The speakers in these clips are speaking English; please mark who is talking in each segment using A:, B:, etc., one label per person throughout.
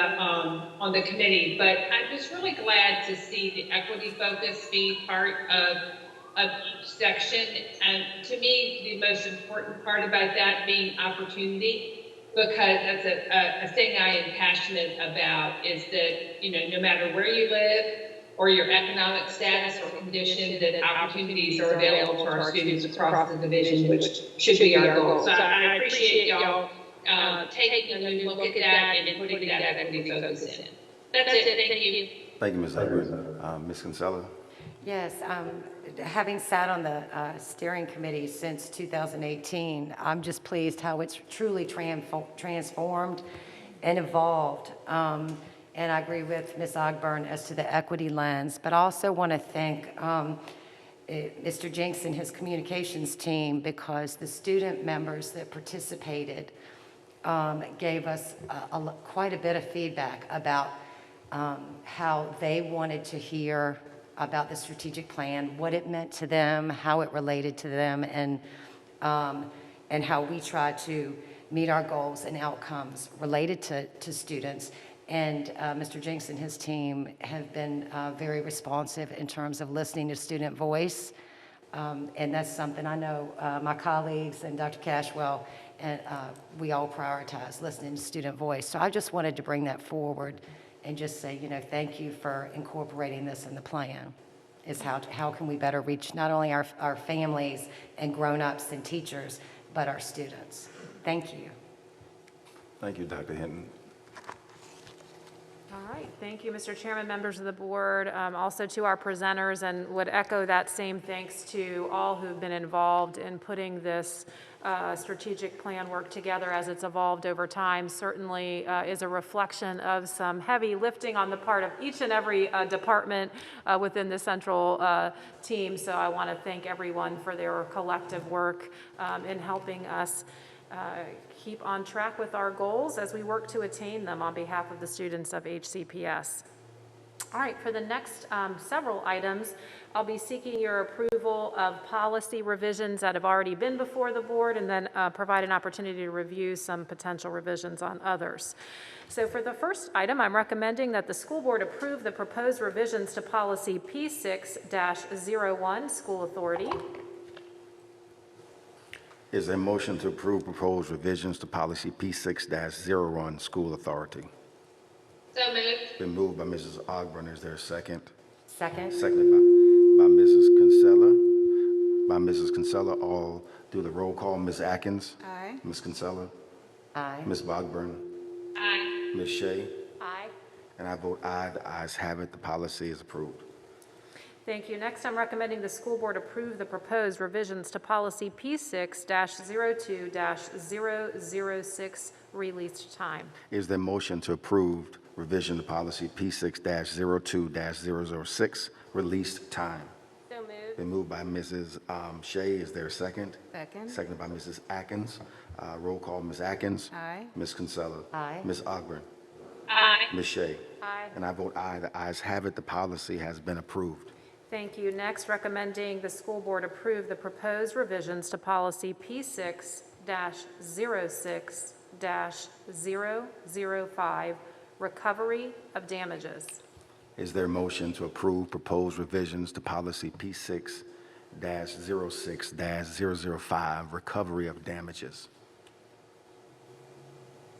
A: um, on the committee, but I'm just really glad to see the equity focus be part of, of each section. And to me, the most important part about that being opportunity, because that's a, a, a thing I am passionate about is that, you know, no matter where you live or your economic status or condition, that opportunities are available to our students across the division, which should be our goal. So I appreciate y'all um, taking a new look at that and putting that equity focus in. That's it, thank you.
B: Thank you, Ms. Edwards. Uh, Ms. Kinsella?
C: Yes, um, having sat on the uh, steering committee since 2018, I'm just pleased how it's truly transfo- transformed and evolved. Um, And I agree with Ms. Ogburn as to the equity lens, but I also want to thank um, eh, Mr. Jenks and his communications team because the student members that participated um, gave us a- a lo- quite a bit of feedback about um, how they wanted to hear about the strategic plan, what it meant to them, how it related to them, and, um, and how we try to meet our goals and outcomes related to, to students. And uh, Mr. Jenks and his team have been uh, very responsive in terms of listening to student voice. Um, And that's something I know uh, my colleagues and Dr. Cashwell, and uh, we all prioritize listening to student voice. So I just wanted to bring that forward and just say, you know, thank you for incorporating this in the plan, is how, how can we better reach not only our, our families and grown-ups and teachers, but our students? Thank you.
B: Thank you, Dr. Hinton.
D: All right, thank you, Mr. Chairman, members of the board, um, also to our presenters, and would echo that same thanks to all who've been involved in putting this uh, strategic plan work together as it's evolved over time. Certainly uh, is a reflection of some heavy lifting on the part of each and every uh, department uh, within the central uh, team. So I want to thank everyone for their collective work um, in helping us uh, keep on track with our goals as we work to attain them on behalf of the students of HCPS. All right, for the next um, several items, I'll be seeking your approval of policy revisions that have already been before the board, and then uh, provide an opportunity to review some potential revisions on others. So for the first item, I'm recommending that the school board approve the proposed revisions to policy P6-01, school authority.
B: Is there a motion to approve proposed revisions to policy P6-01, school authority?
A: So moved.
B: Been moved by Mrs. Ogburn. Is there a second?
C: Second?
B: Seconded by, by Mrs. Kinsella. By Mrs. Kinsella, all do the roll call. Ms. Atkins?
E: Aye.
B: Ms. Kinsella?
C: Aye.
B: Ms. Bogburn?
A: Aye.
B: Ms. Shea?
D: Aye.
B: And I vote aye. The ayes have it. The policy is approved.
D: Thank you. Next, I'm recommending the school board approve the proposed revisions to policy P6-02-006, release time.
B: Is there a motion to approve revision to policy P6-02-006, release time?
D: So moved.
B: Been moved by Mrs. um, Shea. Is there a second?
E: Second.
B: Seconded by Mrs. Atkins. Uh, Roll call, Ms. Atkins.
E: Aye.
B: Ms. Kinsella.
C: Aye.
B: Ms. Ogburn.
A: Aye.
B: Ms. Shea.
D: Aye.
B: And I vote aye. The ayes have it. The policy has been approved.
D: Thank you. Next, recommending the school board approve the proposed revisions to policy P6-06-005, recovery of damages.
B: Is there a motion to approve proposed revisions to policy P6-06-005, recovery of damages?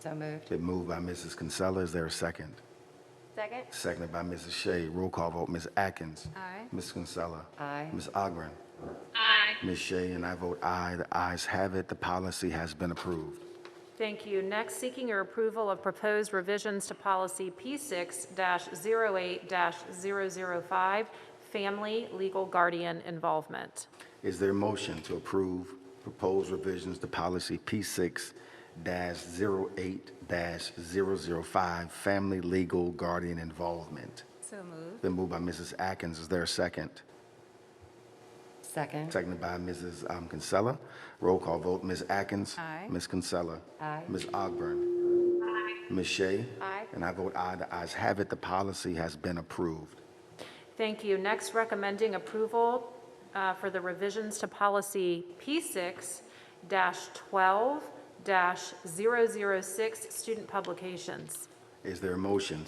C: So moved.
B: Been moved by Mrs. Kinsella. Is there a second?
D: Second.
B: Seconded by Mrs. Shea. Roll call vote, Ms. Atkins.
E: Aye.
B: Ms. Kinsella.
C: Aye.
B: Ms. Ogburn.
A: Aye.
B: Ms. Shea and I vote aye. The ayes have it. The policy has been approved.
D: Thank you. Next, seeking your approval of proposed revisions to policy P6-08-005, family legal guardian involvement.
B: Is there a motion to approve proposed revisions to policy P6-08-005, family legal guardian involvement?
E: So moved.
B: Been moved by Mrs. Atkins. Is there a second?
C: Second?
B: Seconded by Mrs. um, Kinsella. Roll call vote, Ms. Atkins.
E: Aye.
B: Ms. Kinsella.
C: Aye.
B: Ms. Ogburn. Ms. Shea.
D: Aye.
B: And I vote aye. The ayes have it. The policy has been approved.
D: Thank you. Next, recommending approval uh, for the revisions to policy P6-12-006, student publications.
B: Is there a motion